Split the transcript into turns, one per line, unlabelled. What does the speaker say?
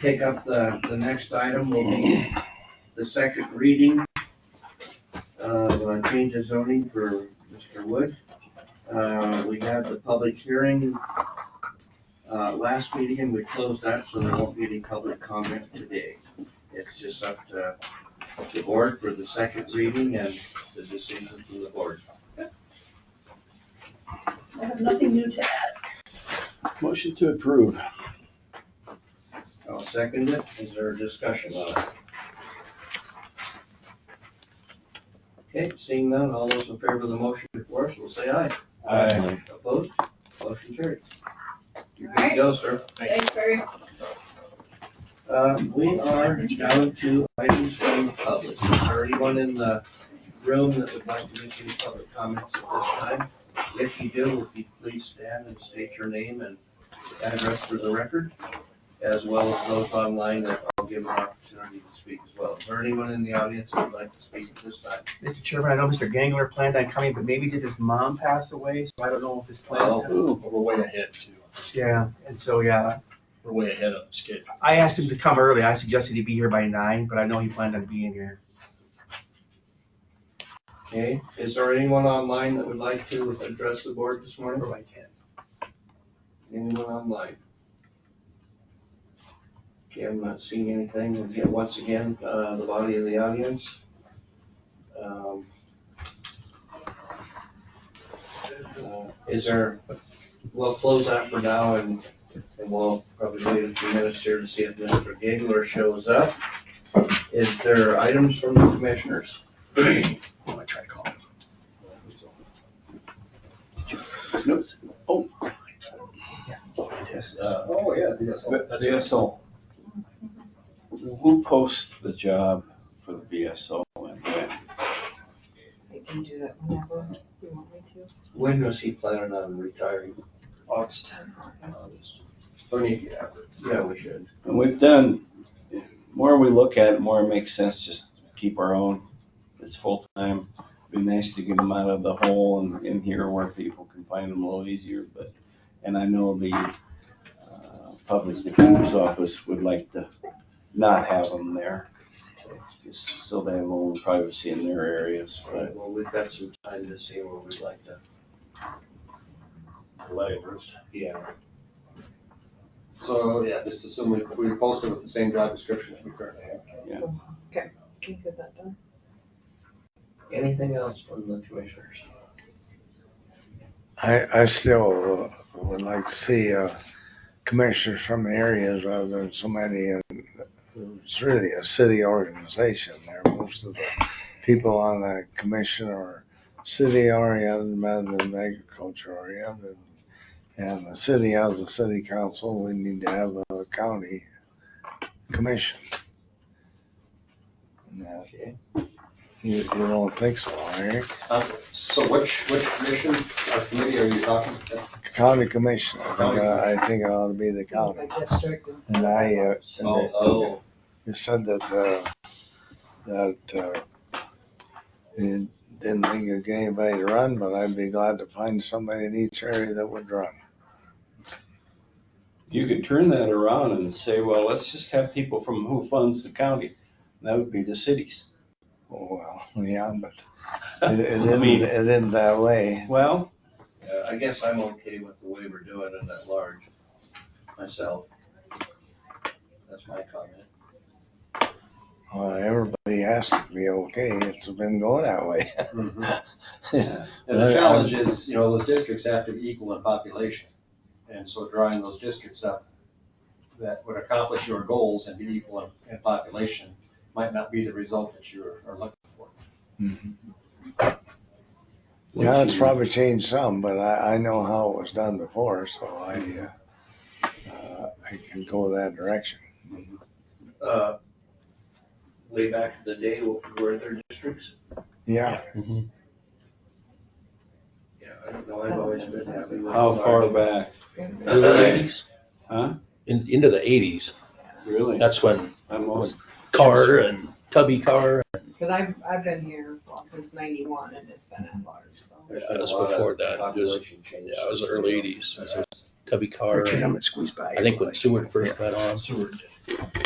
take up the, the next item, will be the second reading of uh, change of zoning for Mr. Wood. Uh, we had the public hearing, uh, last meeting, and we closed that, so there won't be any public comment today. It's just up to the board for the second reading and the decision from the board.
I have nothing new to add.
Motion to approve.
I'll second it. Is there a discussion on it? Okay, seeing none, all those in favor of the motion before us will say aye. Opposed? Motion carried. You're good to go, sir.
Thanks very
Um, we are down to items from the public. Is there anyone in the room that would like to make any public comments at this time? If you do, would you please stand and state your name and address for the record, as well as those online that I'll give an opportunity to speak as well. Is there anyone in the audience that would like to speak at this time?
Mr. Chairman, I know Mr. Gangler planned on coming, but maybe did his mom pass away? So I don't know if his
Oh.
plans.
Ooh,
But We're way ahead too.
Yeah, and so, yeah,
We're way ahead of schedule.
I asked him to come early. I suggested he be here by nine, but I know he planned on being here.
Okay, is there anyone online that would like to address the board this morning?
Or by ten.
Anyone online? Okay, I'm not seeing anything. Again, once again, uh, the body of the audience. Um, uh, Is there, we'll close that for now and, and we'll probably wait a few minutes here to see if Mr. Gagler shows up. Is there items from the commissioners?
I'm gonna try to call him.
snoops. Oh,
Yes.
Uh,
Oh, yeah. That's
the VSO. Who posts the job for the VSO and when?
I can do that whenever you want me to.
When was he planning on retiring? August. Funny, yeah, yeah, we should.
And we've done, the more we look at it, more it makes sense just to keep our own. It's full-time. Be nice to get them out of the hole and in here where people can find them a little easier, but, and I know the uh, Public Defender's Office would like to not have them there. Just so they have a little privacy in their areas,
All
but
right, well, we've got some time to see where we'd like to. Yeah.
So, yeah, just assume we, we post it with the same job description that we currently have.
Can you get that done?
Anything else from the commissioners?
I, I still uh, would like to see uh, commissioners from the areas rather than somebody in, it's really a city organization there. Most of the people on the commission are city oriented rather than agriculture oriented. And the city has a city council, we need to have a county commission. No,
Okay.
You, you don't think so, Eric?
Uh, So which, which commission or committee are you talking?
County commission, I think, uh, I think it ought to be the county.
By district Oh. and stuff.
And I, uh, and
Oh,
it-
oh,
you said that, uh, that, uh, you didn't think you'd get anybody to run, but I'd be glad to find somebody in each area that would run.
you could turn that around and say, well, let's just have people from who funds the county. And That would be the cities.
Oh, well, yeah, but it, it
I
isn't,
mean-
it isn't that way.
Well,
yeah, I guess I'm okay with the way we're doing it at large, myself. That's my comment.
Well, everybody has to be okay. It's been going that way.
And
Yeah.
Mm-hmm. the challenge is, you know, those districts have to be equal in population. And so drawing those districts up that would accomplish your goals and be equal in, in population might not be the result that you are looking for.
Yeah, it's probably changed some, but I, I know how it was done before, so I, uh, uh, I can go that direction.
Uh, Way back in the day, what were there districts?
Yeah.
Yeah, I don't know, I've always been happy with.
How far
large.
back?
It's gonna be-
eighties.
Huh?
In, into the eighties,
Really?
that's when
I'm almost,
Carr and Tubby Carr,
Cause I've, I've been here, well, since ninety-one and it's been at large, so.
There's been a
That's
lot of
before that. It was-
population change.
yeah, it was the early eighties.
That's-
Tubby Carr.
Richard, I'm
and
gonna squeeze by.
I think when Seward first got on,
Seward. did.